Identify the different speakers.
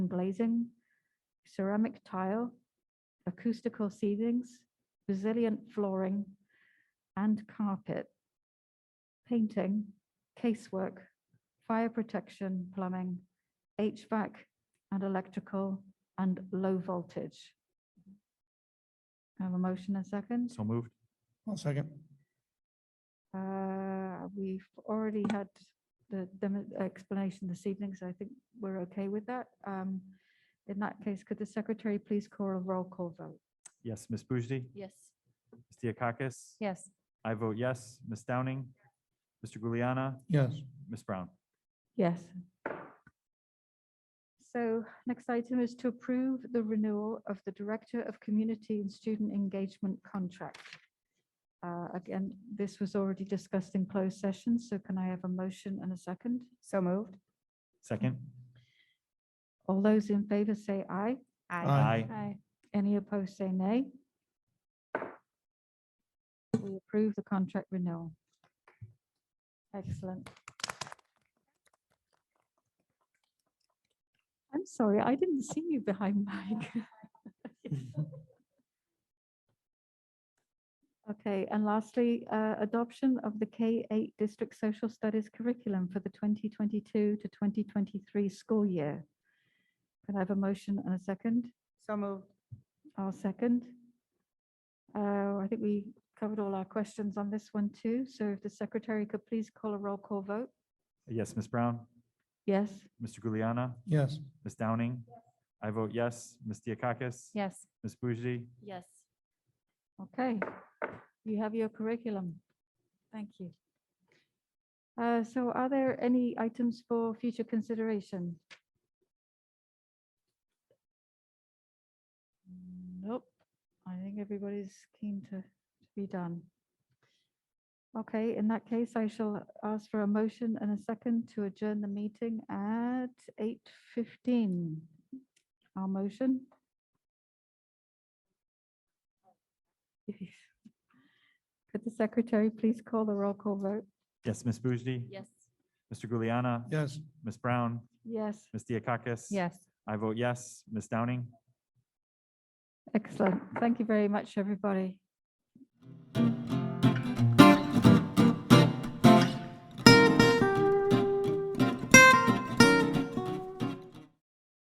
Speaker 1: glazing, ceramic tile, acoustical ceilings, resilient flooring, and carpet, painting, casework, fire protection, plumbing, HVAC, and electrical, and low voltage. Have a motion and second?
Speaker 2: So moved.
Speaker 3: One second.
Speaker 1: Uh, We've already had the demo- explanation this evening, so I think we're okay with that. Um, In that case, could the secretary please call a roll call vote?
Speaker 2: Yes, Ms. Bujdi?
Speaker 4: Yes.
Speaker 2: Ms. Diakakis?
Speaker 4: Yes.
Speaker 2: I vote yes. Ms. Downing? Mr. Juliana?
Speaker 3: Yes.
Speaker 2: Ms. Brown?
Speaker 1: Yes. So next item is to approve the renewal of the Director of Community and Student Engagement contract. Uh, Again, this was already discussed in closed session, so can I have a motion and a second?
Speaker 4: So moved.
Speaker 2: Second?
Speaker 1: All those in favor say aye.
Speaker 3: Aye.
Speaker 1: Aye. Any opposed, say nay. We approve the contract renewal. Excellent. I'm sorry, I didn't see you behind Mike. Okay, and lastly, uh, adoption of the K-8 District Social Studies curriculum for the 2022 to 2023 school year. Can I have a motion and a second?
Speaker 4: So moved.
Speaker 1: I'll second. Uh, I think we covered all our questions on this one too, so if the secretary could please call a roll call vote.
Speaker 2: Yes, Ms. Brown?
Speaker 1: Yes,
Speaker 2: Mr. Juliana?
Speaker 3: Yes.
Speaker 2: Ms. Downing? I vote yes. Ms. Diakakis?
Speaker 4: Yes.
Speaker 2: Ms. Bujdi?
Speaker 4: Yes.
Speaker 1: okay. You have your curriculum. Thank you. Uh, So are there any items for future consideration? Nope, I think everybody's keen to to be done. Okay, in that case, I shall ask for a motion and a second to adjourn the meeting at 8:15. Our motion? Could the secretary please call the roll call vote?
Speaker 2: Yes, Ms. Bujdi?
Speaker 4: Yes.
Speaker 2: Mr. Juliana?
Speaker 3: Yes.
Speaker 2: Ms. Brown?
Speaker 1: Yes,
Speaker 2: Ms. Diakakis?
Speaker 4: Yes.
Speaker 2: I vote yes. Ms. Downing?
Speaker 1: excellent. Thank you very much, everybody.